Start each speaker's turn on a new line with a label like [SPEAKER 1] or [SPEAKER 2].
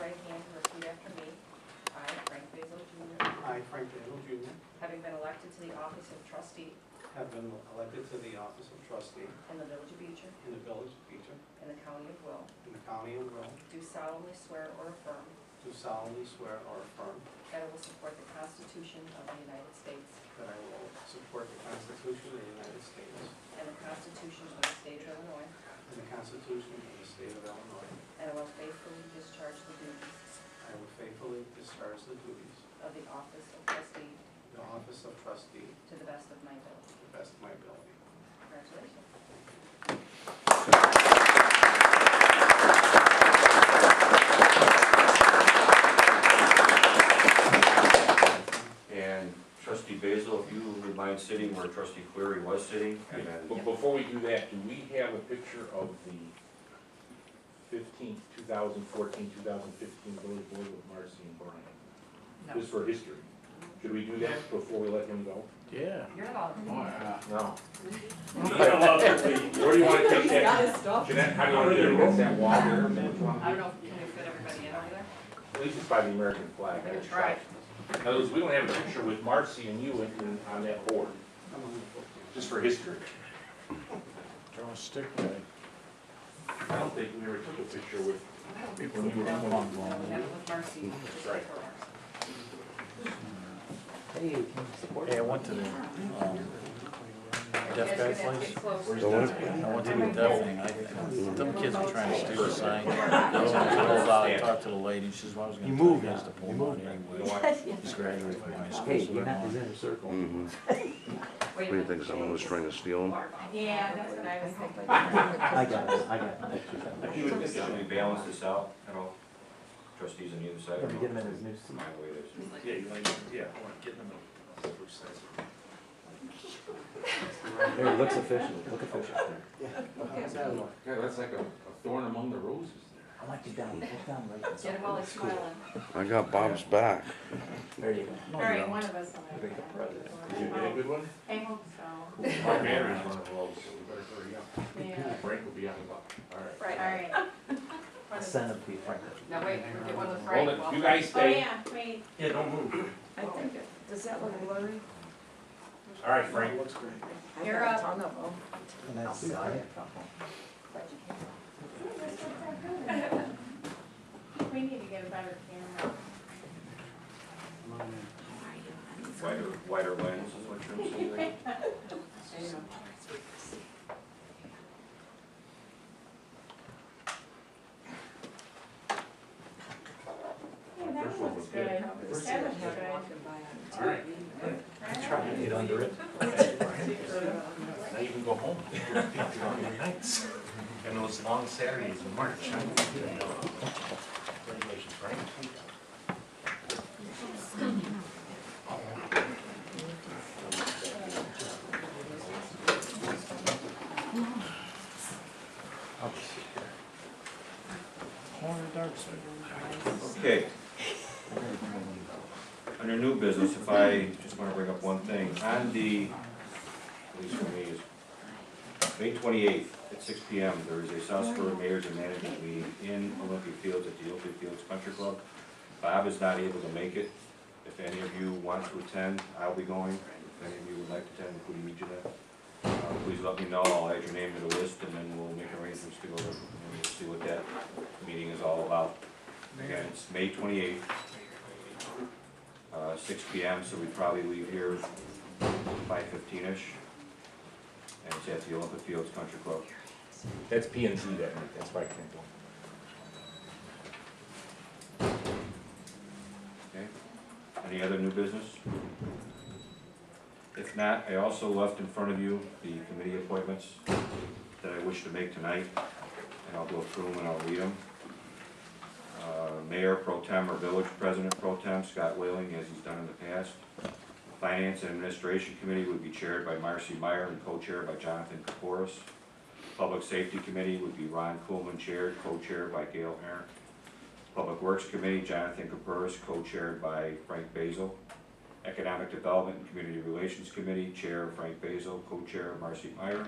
[SPEAKER 1] right hand and repeat after me. I, Frank Basil Jr.,
[SPEAKER 2] I, Frank Basil Jr.,
[SPEAKER 1] having been elected to the office of trustee
[SPEAKER 2] have been elected to the office of trustee
[SPEAKER 1] in the village of Beecher
[SPEAKER 2] in the village of Beecher
[SPEAKER 1] in the county of Will,
[SPEAKER 2] in the county of Will,
[SPEAKER 1] do solemnly swear or affirm
[SPEAKER 2] do solemnly swear or affirm
[SPEAKER 1] that I will support the Constitution of the United States
[SPEAKER 2] that I will support the Constitution of the United States
[SPEAKER 1] and the Constitution of the state of Illinois,
[SPEAKER 2] and the Constitution of the state of Illinois.
[SPEAKER 1] and I will faithfully discharge the duties
[SPEAKER 2] I will faithfully discharge the duties
[SPEAKER 1] of the office of trustee
[SPEAKER 2] of the office of trustee
[SPEAKER 1] to the best of my ability.
[SPEAKER 2] to the best of my ability.
[SPEAKER 1] Congratulations.
[SPEAKER 3] And trustee Basil, if you would mind sitting where trustee Cleary was sitting, and then,
[SPEAKER 4] But before we do that, do we have a picture of the fifteenth, two thousand fourteen, two thousand fifteen village board with Marcy and Brian?
[SPEAKER 1] No.
[SPEAKER 4] Just for history. Should we do that before we let him go?
[SPEAKER 5] Yeah.
[SPEAKER 1] You're allowed.
[SPEAKER 4] No.
[SPEAKER 5] Well,
[SPEAKER 4] Where do you wanna take that? Jeanette, how do you wanna do it? Against that wall there?
[SPEAKER 1] I don't know, if can we fit everybody in over there?
[SPEAKER 4] At least it's by the American flag.
[SPEAKER 1] We can try.
[SPEAKER 4] In other words, we don't have a picture with Marcy and you in- in- on that board,
[SPEAKER 2] I'm on the book.
[SPEAKER 4] just for history.
[SPEAKER 5] Draw a stick with it.
[SPEAKER 4] I don't think we ever took a picture with. when we were
[SPEAKER 1] No,
[SPEAKER 4] on the
[SPEAKER 1] no,
[SPEAKER 4] wall.
[SPEAKER 1] we have it with Marcy. just
[SPEAKER 4] Right.
[SPEAKER 1] for Marcy.
[SPEAKER 5] Hey, I went to the, um,
[SPEAKER 1] You
[SPEAKER 5] deaf
[SPEAKER 1] guys are
[SPEAKER 5] guy
[SPEAKER 1] gonna have to
[SPEAKER 5] place.
[SPEAKER 1] get close.
[SPEAKER 5] I went to the deaf thing. I, them kids are trying to steer a sign. I was gonna go out and talk to the lady. She says, well, I was gonna tell you guys to pull him out anyway. He's graduated from high school.
[SPEAKER 6] Hey,
[SPEAKER 5] so
[SPEAKER 6] you're
[SPEAKER 5] I'm
[SPEAKER 6] not
[SPEAKER 5] on.
[SPEAKER 6] in the circle.
[SPEAKER 7] Mm-hmm.
[SPEAKER 1] Wait a
[SPEAKER 7] What do you
[SPEAKER 1] minute.
[SPEAKER 7] think, someone was trying to steal him?
[SPEAKER 1] Yeah, that's what I was thinking.
[SPEAKER 6] I got it, I got it.
[SPEAKER 3] should we balance this out at all? Trustees on either side?
[SPEAKER 6] Let me get him in his new suit.
[SPEAKER 3] My way there's.
[SPEAKER 5] Yeah, you like, yeah, I wanna get in the middle.
[SPEAKER 6] There, it looks official, look official.
[SPEAKER 2] How's that look?
[SPEAKER 8] Yeah, that's like a a thorn among the roses there.
[SPEAKER 6] I want you down, look down right.
[SPEAKER 1] Get him while he's smiling.
[SPEAKER 7] I got Bob's back.
[SPEAKER 6] There you go.
[SPEAKER 1] All right, one of us. will have
[SPEAKER 6] Big
[SPEAKER 1] that.
[SPEAKER 6] president.
[SPEAKER 4] Did you get a good one?
[SPEAKER 1] I hope so.
[SPEAKER 4] Our banner is one of those, so we better hurry up.
[SPEAKER 1] Yeah.
[SPEAKER 4] Frank will be on the buck, all right.
[SPEAKER 1] Right, all right.
[SPEAKER 6] I'll Send him to you, Frank.
[SPEAKER 1] Now wait, we'll get one with Frank.
[SPEAKER 4] Hold it,
[SPEAKER 1] while-
[SPEAKER 4] you guys stay.
[SPEAKER 1] Oh, wait.
[SPEAKER 8] Yeah, don't move.
[SPEAKER 1] I think, it- does that look blurry?
[SPEAKER 4] All right, Frank.
[SPEAKER 2] Looks great.
[SPEAKER 1] You're up.
[SPEAKER 6] And that's, yeah.
[SPEAKER 1] We need to get a better camera.
[SPEAKER 2] I'm on the-
[SPEAKER 3] Wider, wider lens is what you're saying, right?
[SPEAKER 1] Yeah, that one looks good. That looks good.
[SPEAKER 4] All right.
[SPEAKER 6] Try to get under it.
[SPEAKER 4] Now you can go home. And those long Saturdays in March. huh? Congratulations, Frank.
[SPEAKER 5] Corner dark side.
[SPEAKER 3] Okay. Under new business, if I just wanna bring up one thing, on the, at least for me, is May twenty-eighth at six P M, there is a South Dakota Mayors and Management meeting in Olympia Fields at the Olympia Fields Country Club. Bob is not able to make it. If any of you want to attend, I'll be going. If any of you would like to attend, including me, Jeanette, uh, please let me know. I'll add your name to the list and then we'll make arrangements to go there and we'll see what that meeting is all about. Again, it's May twenty-eighth, uh, six P M, so we probably leave here by fifteen-ish. And it's at the Olympic Fields Country Club.
[SPEAKER 4] That's P and Z that night, that's why I can't go.
[SPEAKER 3] Okay, any other new business? If not, I also left in front of you the committee appointments that I wish to make tonight, and I'll go through them and I'll read them. Uh, Mayor pro tem or village president pro tem, Scott Whaling, as he's done in the past. Finance and Administration Committee would be chaired by Marcy Meyer and co-chaired by Jonathan Kaporis. Public Safety Committee would be Ron Coolman chaired, co-chaired by Gail Aaron. Public Works Committee, Jonathan Caperas, co-chaired by Frank Basil. Economic Development and Community Relations Committee, Chair Frank Basil, co-chair Marcy Meyer.